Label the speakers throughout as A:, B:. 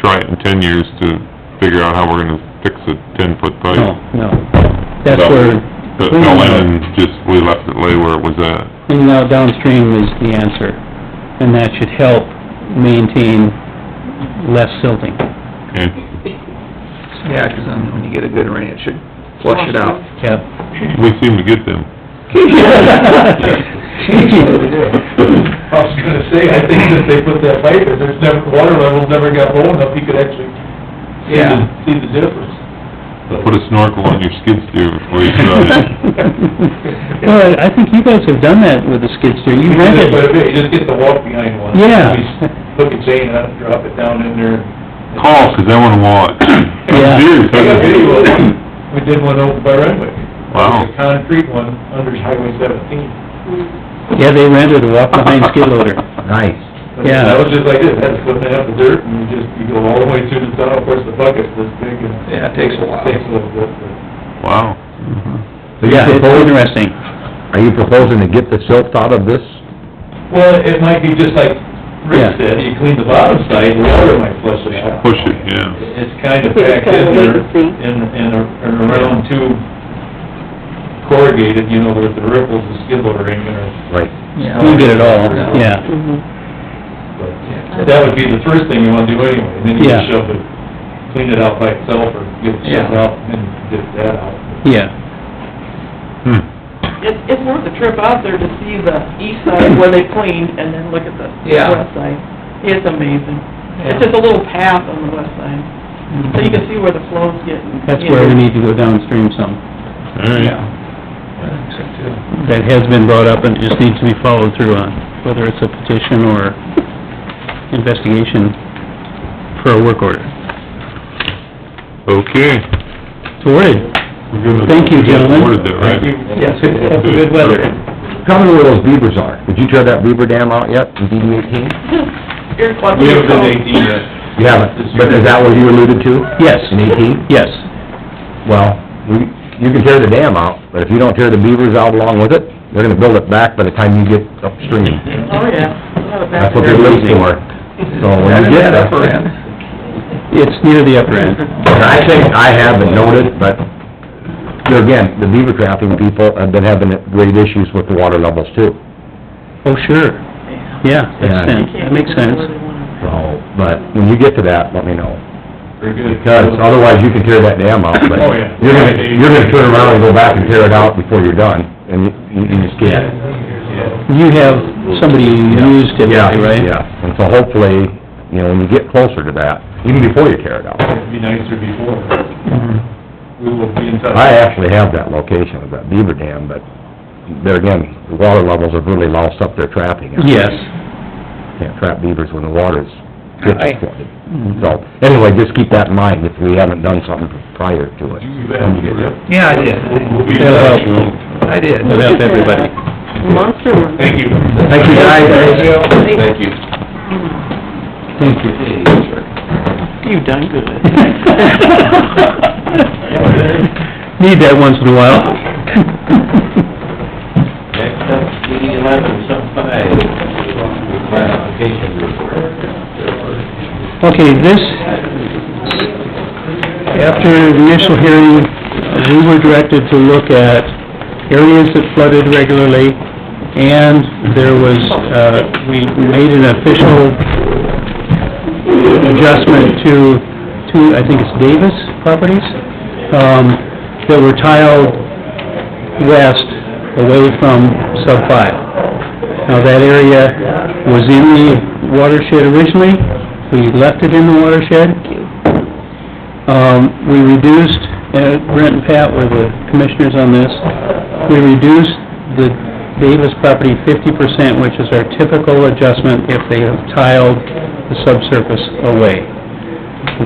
A: try it in ten years to figure out how we're gonna fix a ten-foot pipe.
B: No, no. That's
A: Oh, So,
B: where
A: But
B: cleaning
A: no,
B: out,
A: and just, we left it lay where it was at.
B: cleaning out downstream is the answer, and that should help maintain less silting.
A: Okay,
C: Yeah, 'cause then when you get a good rain, it should flush it out.
B: Yep.
A: we seem to get them.
D: I was gonna say, I think that they put that pipe in, there's never, water levels never got low enough, you could actually see the,
C: Yeah.
D: see the difference.
A: Put a snorkel on your skid steer before you try it.
B: Well, I think you guys have done that with the skid steer, you
D: But
B: rented,
D: if you just get the walk behind one.
B: Yeah.
D: Look at Zane, I'll drop it down in there.
A: Call, 'cause I wanna watch.
B: Yeah.
A: Serious,
D: I got
A: I-
D: video of one. we did one over by Renwick.
A: Wow.
D: It was a concrete one, under Highway seventeen.
B: yeah, they rented a walk-behind skid loader.
E: Nice.
D: But
B: Yeah.
D: That was just like this, that's foot and a half of dirt, and you just, you go all the way through the tunnel, of course, the bucket's this big, and...
C: Yeah, it takes a while.
D: Takes a little bit, but...
A: Wow.
E: So you're
B: Yeah, it's
E: proposing,
B: interesting.
E: are you proposing to get the silt out of this?
D: Well, it might be just like
B: Yeah.
D: Rick said, you clean the bottom side, the water might flush it out.
A: Push it, yeah.
D: It's kind of
F: It's
D: packed
F: kind of
D: in
F: wait
D: there,
F: and see.
D: and, and ar- and around two corrugated, you know, there's the ripples, the skid loader in there.
E: Right.
C: Yeah.
B: We did it all, yeah.
F: Mhm.
D: But That would be the first thing you wanna do anyway, and then you
B: Yeah.
D: just shove it, clean it out by itself, or get it shoved
C: Yeah.
D: out, and get that out.
B: Yeah,
A: Hmm.
G: It's, it's worth a trip out there to see the east side where they cleaned and then look at the
C: Yeah.
G: west side. It's amazing. It's just a little path on the west side, so you can see where the flow's getting.
B: that's where we need to go downstream some.
A: All right.
C: I think so, too.
B: That has been brought up and just needs to be followed through on, whether it's a petition or investigation for a work order.
A: Okay.
B: Sorted.
A: We're gonna-
B: Thank you,
A: we got
B: gentlemen.
A: awarded that, right?
C: Yes, we did.
A: Good weather.
E: Tell me where those beavers are. Did you tear that beaver dam out yet in DD eighteen?
G: We
D: We haven't done eighteen yet.
E: You haven't, but is that what you alluded to?
B: Yes.
E: In eighteen?
B: Yes,
E: Well, we, you can tear the dam out, but if you don't tear the beavers out along with it, they're gonna build it back by the time you get upstream.
G: Oh, yeah. We'll have it back
E: That's what they're
G: there.
E: looking for. So when you get
C: Yeah,
E: there.
C: upper end.
B: it's near the upper end.
E: And I think I have been noted, but, here again, the beaver trapping people have been having great issues with the water levels too.
B: Oh, sure, yeah,
E: Yeah.
B: that's sense,
G: Can't
B: that makes
G: get them
B: sense.
G: where they want 'em.
E: So, but when you get to that, let me know.
D: Very good.
E: Because otherwise you can tear that dam out, but
D: Oh, yeah.
E: you're gonna, you're gonna turn around and go back and tear it out before you're done, and you, you just can't.
D: Yeah.
B: You have somebody you use typically, right?
E: Yeah, yeah, and so hopefully, you know, when you get closer to that, even before you tear it out.
D: It'd be nicer before.
E: Mm-hmm.
D: We will be in touch.
E: I actually have that location of that beaver dam, but there again, the water levels have really loused up their trapping.
B: Yes,
E: Can't trap beavers when the water's
B: Aye.
E: fifty foot. So, anyway, just keep that in mind if we haven't done something prior to it.
D: You bet.
C: Yeah, I did.
D: We'll be in
B: That'll
D: touch.
B: help.
C: I did.
B: That'll help everybody.
F: Monster one.
D: Thank you.
E: Thank you, guys.
F: Thank
D: you.
B: thank you.
G: You done good.
B: Need that once in a while.
H: Next up, DD eleven, sub five, require application report.
B: Okay, this, after the initial hearing, we were directed to look at areas that flooded regularly, and there was, uh, we made an official adjustment to, to, I think it's Davis properties, um, that were tiled west away from sub five. Now, that area was in the watershed originally, we left it in the watershed. Um, we reduced, and Brent and Pat were the commissioners on this, we reduced the Davis property fifty percent, which is our typical adjustment if they have tiled the subsurface away.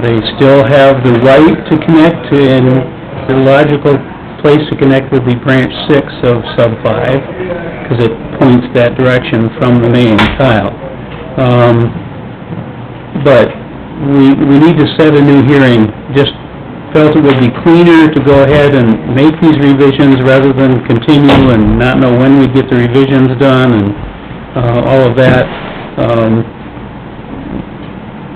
B: They still have the right to connect and the logical place to connect would be branch six of sub five, because it points that direction from the main tile. Um, but we, we need to set a new hearing. Just felt it would be cleaner to go ahead and make these revisions rather than continue and not know when we'd get the revisions done and, uh, all of that. Um,